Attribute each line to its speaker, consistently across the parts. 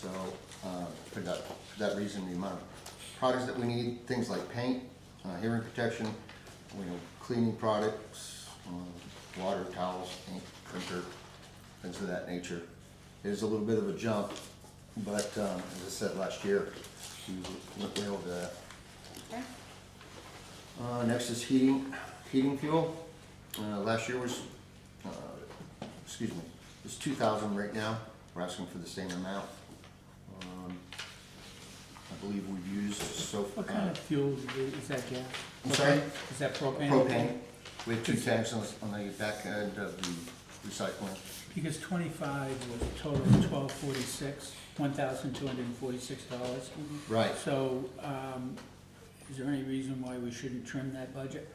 Speaker 1: So, uh, for that, for that reason, the amount of products that we need, things like paint, uh, hearing protection, you know, cleaning products, um, water, towels, ink, printer, things of that nature. It is a little bit of a jump, but, um, as I said last year, we went way over that.
Speaker 2: Okay.
Speaker 1: Uh, next is heating, heating fuel. Uh, last year was, uh, excuse me, it's two thousand right now. We're asking for the same amount. Um, I believe we've used so far.
Speaker 3: What kind of fuel do you- is that gas?
Speaker 1: I'm sorry?
Speaker 3: Is that propane?
Speaker 1: Propane. We have two tanks on, the- on the back end of the recycling.
Speaker 3: Because twenty-five was a total of twelve forty-six, one thousand two hundred and forty-six dollars.
Speaker 1: Mm-hmm. Right.
Speaker 3: So, um, is there any reason why we shouldn't trim that budget?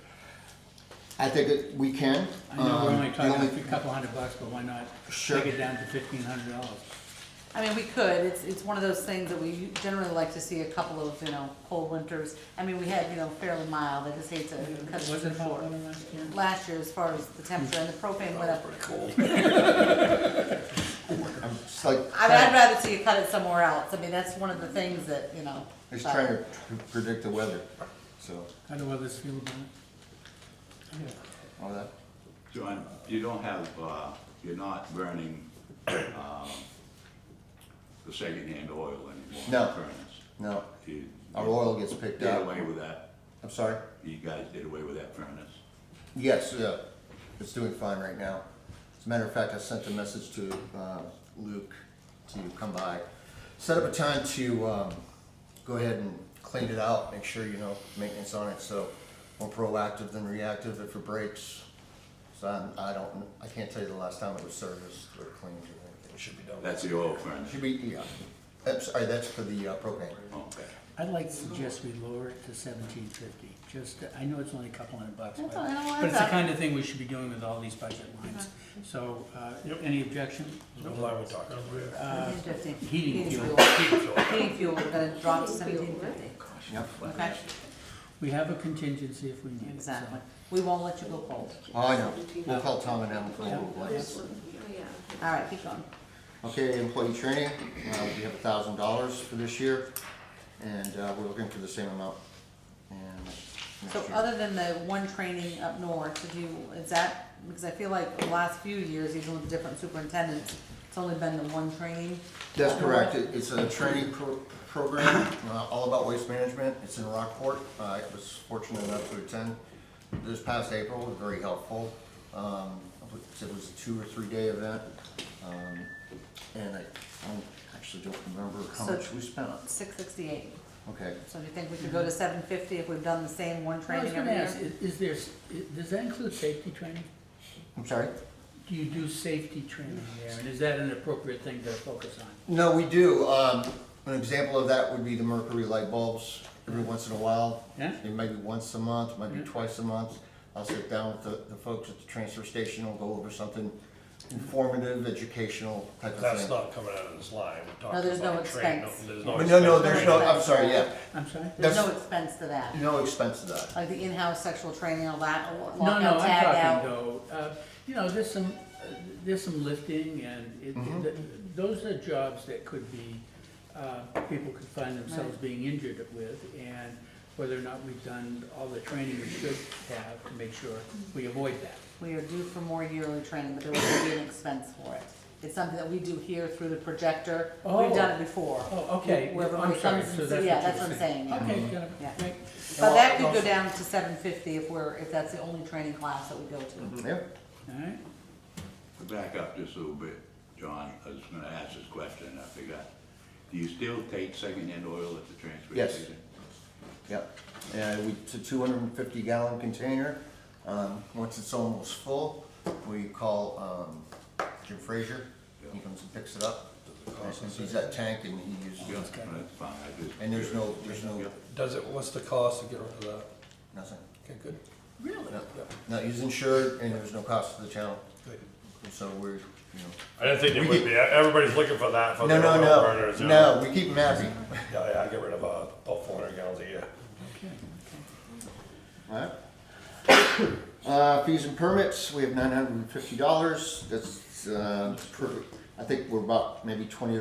Speaker 1: I think that we can.
Speaker 3: I know we're
Speaker 1: Um,
Speaker 3: only
Speaker 1: the
Speaker 3: talking a couple hundred bucks, but why not
Speaker 1: Sure.
Speaker 3: take it down to fifteen hundred dollars?
Speaker 2: I mean, we could, it's, it's one of those things that we generally like to see a couple of, you know, cold winters. I mean, we had, you know, fairly mild, I just hate to cut
Speaker 3: Was it
Speaker 2: it
Speaker 3: about
Speaker 2: short.
Speaker 3: one last year?
Speaker 2: Last year, as far as the temperature and the propane went up,
Speaker 1: I'm just like,
Speaker 2: I mean, I'd rather see you cut it somewhere else, I mean, that's one of the things that, you know. uh,
Speaker 1: just
Speaker 2: but-
Speaker 1: trying to pr- predict the weather, so,
Speaker 3: How do others feel about it? Yeah.
Speaker 1: all that.
Speaker 4: John, you don't have, uh, you're not burning, um, the secondhand oil anymore. in
Speaker 1: No.
Speaker 4: the furnace.
Speaker 1: No,
Speaker 4: You
Speaker 1: our
Speaker 4: you
Speaker 1: oil gets picked
Speaker 4: did
Speaker 1: up.
Speaker 4: away with that,
Speaker 1: I'm sorry?
Speaker 4: you guys did away with that furnace.
Speaker 1: Yes, yeah, it's doing fine right now. As a matter of fact, I sent a message to uh, Luke to come by. Set up a time to um, go ahead and clean it out, make sure you know maintenance on it, so more proactive than reactive if it breaks. So I'm- I don't, I can't tell you the last time it was serviced or cleaned or anything, it should be done.
Speaker 4: That's the oil furnace.
Speaker 1: Should be, yeah, that's, sorry, that's for the uh, propane.
Speaker 4: Okay.
Speaker 3: I'd like to suggest we lower it to seventeen fifty, just, to- I know it's only a couple hundred bucks,
Speaker 2: That's
Speaker 3: but,
Speaker 2: all- I don't want
Speaker 3: but it's the
Speaker 2: that. Uh-huh.
Speaker 3: kind of thing we should be doing with all these budget lines. So, uh, any objection?
Speaker 2: uh, $17.50.
Speaker 3: uh, Heating fuel.
Speaker 2: Heating fuel, we're gonna drop to seventeen fifty,
Speaker 1: Yep.
Speaker 2: okay,
Speaker 3: We have a contingency if we need it, so.
Speaker 2: exactly. We won't let you go cold,
Speaker 1: Oh, I know, we'll call Tom and them for a little while.
Speaker 2: all right, keep going.
Speaker 1: Okay, employee training, uh, we have a thousand dollars for this year, and, uh, we're looking for the same amount. And next
Speaker 2: So
Speaker 1: year.
Speaker 2: other than the one training up north, did you, is that, because I feel like the last few years, even with different superintendents, it's only been the one training?
Speaker 1: That's correct, It- it's a training pro- program, uh, all about waste management, it's in Rockport, I was fortunate enough to attend this past April, it was very helpful. Um, I believe it was a two or three day event, um, and I, I actually don't remember how
Speaker 2: So-
Speaker 1: much we spent on it.
Speaker 2: Six sixty-eight,
Speaker 1: Okay,
Speaker 2: so do you think we could go to seven fifty if we've done the same one
Speaker 3: I was
Speaker 2: training
Speaker 3: gonna
Speaker 2: every year?
Speaker 3: ask, i- is there, s- i- does that include safety training?
Speaker 1: I'm sorry?
Speaker 3: Do you do safety training there, and is that an appropriate thing to focus on?
Speaker 1: No, we do. Um, an example of that would be the mercury light bulbs. Every once in a while,
Speaker 3: Yeah.
Speaker 1: it might be once a month, might be
Speaker 3: Yeah.
Speaker 1: twice a month. I'll sit down with the, the folks at the transfer station. We'll go over something informative, educational type of
Speaker 5: That's
Speaker 1: thing.
Speaker 5: not coming out of this line, we're
Speaker 2: No,
Speaker 5: talking
Speaker 2: there's no
Speaker 5: about a train.
Speaker 2: expense.
Speaker 5: There's
Speaker 1: but no, no,
Speaker 5: expense.
Speaker 1: there's no. I'm sorry. Yeah,
Speaker 3: I'm sorry?
Speaker 2: There's no
Speaker 1: that's-
Speaker 2: expense to that,
Speaker 1: no expense to that.
Speaker 2: like the in-house sexual training, a lot,
Speaker 3: No, no,
Speaker 2: lockout,
Speaker 3: I'm
Speaker 2: tag
Speaker 3: talking
Speaker 2: out.
Speaker 3: though, uh, you know, there's some, uh, there's some lifting and it, th- those are jobs that could be, uh, people could find themselves being injured with and whether or not we've done all the training we should have to make sure we avoid that.
Speaker 2: We are due for more yearly training, but there will be an expense for it. It's something that we do here through the projector, we've
Speaker 3: Oh.
Speaker 2: done it before.
Speaker 3: Oh, okay,
Speaker 2: Where
Speaker 3: I'm
Speaker 2: everybody
Speaker 3: sorry,
Speaker 2: comes
Speaker 3: so
Speaker 2: and-
Speaker 3: that's what
Speaker 2: yeah,
Speaker 3: you're
Speaker 2: that's what I'm saying, yeah.
Speaker 3: Okay, got it.
Speaker 2: Yeah.
Speaker 3: Right.
Speaker 2: But that could go down to seven fifty if we're, if that's the only training class that we go to.
Speaker 1: Yeah.
Speaker 3: all right,
Speaker 4: To Back up just a little bit, John, I was gonna ask this question, and I forgot. Do you still take secondhand oil at the transfer
Speaker 1: Yes.
Speaker 4: station?
Speaker 1: Yep, and we, it's a two hundred and fifty gallon container, um, once it's almost full, we call, um, Jim Frazier, he comes and picks it up. And He's that tank and he uses
Speaker 4: Yeah,
Speaker 1: it,
Speaker 4: that's fine, I just.
Speaker 1: and there's no, there's no,
Speaker 4: Yeah.
Speaker 6: Does it, what's the cost to get rid of that?
Speaker 1: nothing,
Speaker 6: Okay, good,
Speaker 3: really?
Speaker 1: no, no, he's insured and there's no cost to the town,
Speaker 6: good.
Speaker 1: and so we're, you
Speaker 5: I didn't think
Speaker 1: We
Speaker 5: it would be, everybody's looking for that
Speaker 1: know.
Speaker 5: for
Speaker 1: No,
Speaker 5: their
Speaker 1: no,
Speaker 5: oil burners.
Speaker 1: no,
Speaker 5: you know.
Speaker 1: no, we keep him happy.
Speaker 5: Yeah, yeah, I get rid of uh, about four hundred gallons a year.
Speaker 1: Alright. Uh, fees and permits, we have nine hundred and fifty dollars, that's, uh, per, I think we're about maybe twenty dollars